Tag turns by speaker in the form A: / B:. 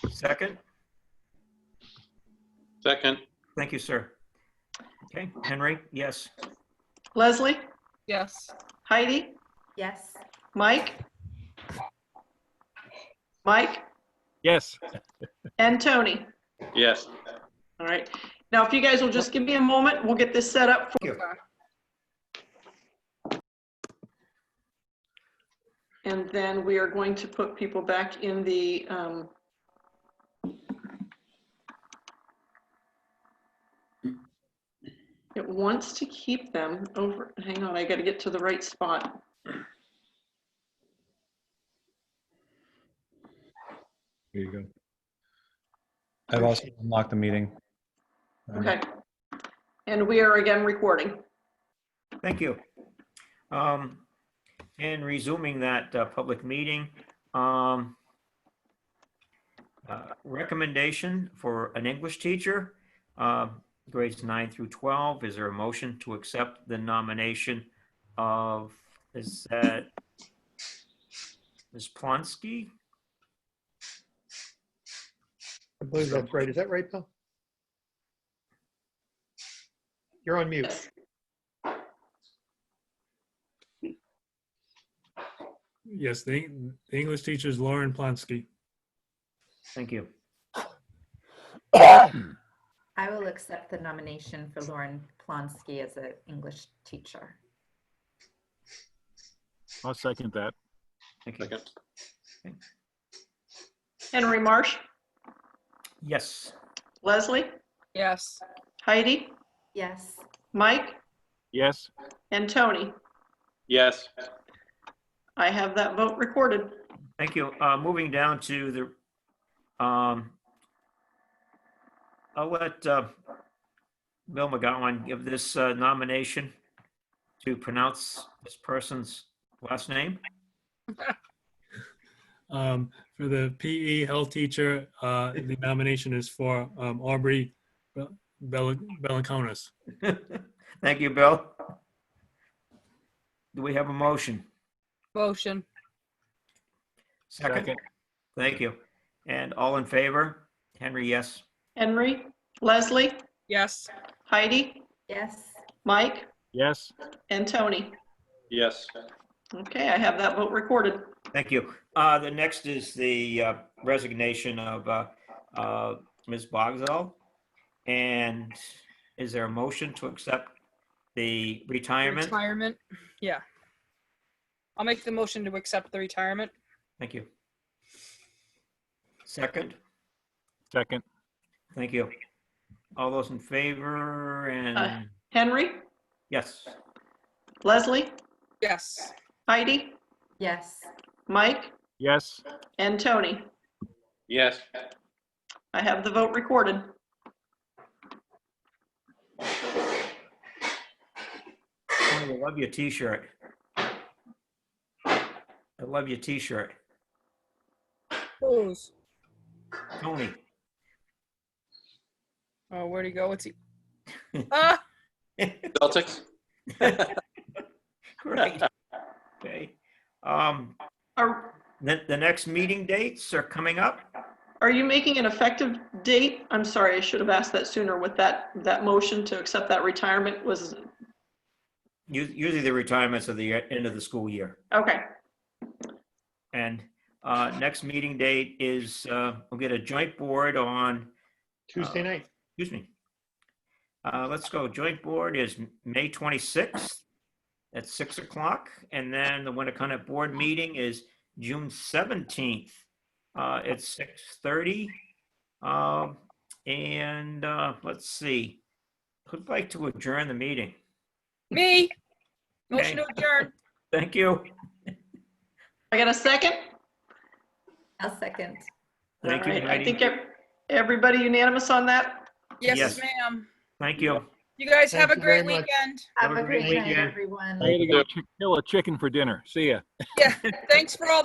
A: Second?
B: Second,
A: Thank you, sir. Okay, Henry, yes.
C: Leslie,
D: Yes.
C: Heidi,
E: Yes.
C: Mike? Mike
F: Yes.
C: and Tony.
B: yes.
C: All right. Now, if you guys will just give me a moment, we'll get this set up. for
A: Thank
C: And then we are going to put people back in the, um, it wants to keep them over, hang on, I gotta get to the right spot.
G: There you go. I've also unlocked the meeting. Um,
C: Okay. And we are again recording.
A: Thank you. Um, And resuming that uh, public meeting, um, uh, recommendation for an English teacher, uh, grades nine through 12, is there a motion to accept the nomination of, is that Ms. Plonsky?
H: I believe that's right. Is that right, Bill? You're on mute.
F: Yes, the, Eng- the English teacher is Lauren Plonsky.
A: Thank you.
E: I will accept the nomination for Lauren Plonsky as an English teacher.
F: I'll second that.
A: Thank you.
B: Second,
C: Henry Marsh,
A: Yes.
C: Leslie,
D: Yes.
C: Heidi,
E: Yes.
C: Mike,
F: Yes.
C: and Tony.
B: yes.
C: I have that vote recorded.
A: Thank you. Uh, Moving down to the, um, I'll let uh, Bill McGowan give this uh, nomination to pronounce this person's last name.
F: Um, for the PE health teacher, uh, the nomination is for um, Aubrey Bel- Bel- Beliconis.
A: Thank you, Bill. Do we have a motion?
D: Motion.
A: Second. Thank you. And all in favor? Henry, yes.
C: Henry, Leslie,
D: Yes.
C: Heidi,
E: Yes.
C: Mike,
F: Yes.
C: and Tony.
B: Yes.
C: Okay, I have that vote recorded.
A: Thank you. Uh, The next is the uh, resignation of uh, uh, Ms. Bogzell. And is there a motion to accept the retirement?
D: Retirement. Yeah. I'll make the motion to accept the retirement.
A: Thank you. Second,
F: Second.
A: thank you. All those in favor and,
C: Aye. Henry,
A: yes,
C: Leslie,
D: Yes.
C: Heidi,
E: Yes.
C: Mike,
F: Yes.
C: and Tony.
B: Yes.
C: I have the vote recorded.
A: Tony, I love your t-shirt. I love your t-shirt.
D: Close.
A: Tony,
D: Oh, where'd he go? What's he? Ah,
B: Celtics?
A: great. Okay. Um,
C: Are,
A: The, the next meeting dates are coming up.
C: are you making an effective date? I'm sorry, I should have asked that sooner with that, that motion to accept that retirement was,
A: Us- Usually the retirements are the end of the school year.
C: okay.
A: And uh, next meeting date is, uh, we'll get a joint board on,
H: Tuesday night.
A: excuse me. Uh, Let's go. Joint board is May 26th at 6 o'clock. And then the Winnicott Board meeting is June 17th uh, at 6:30. Um, And uh, let's see, who'd like to adjourn the meeting?
D: me. Motion to adjourn.
A: Thank you.
C: I got a second?
E: I'll second.
A: Thank you,
C: All right, I
A: Heidi.
C: think ev- everybody unanimous on that?
A: Yes.
D: Yes, ma'am.
A: Thank you.
D: You guys have a
H: Thank you very
D: great
H: much.
D: weekend.
E: Have a great night,
A: weekend.
E: everyone.
B: Thank you.
F: Kill a chicken for dinner. See ya.
D: Yeah. Thanks for all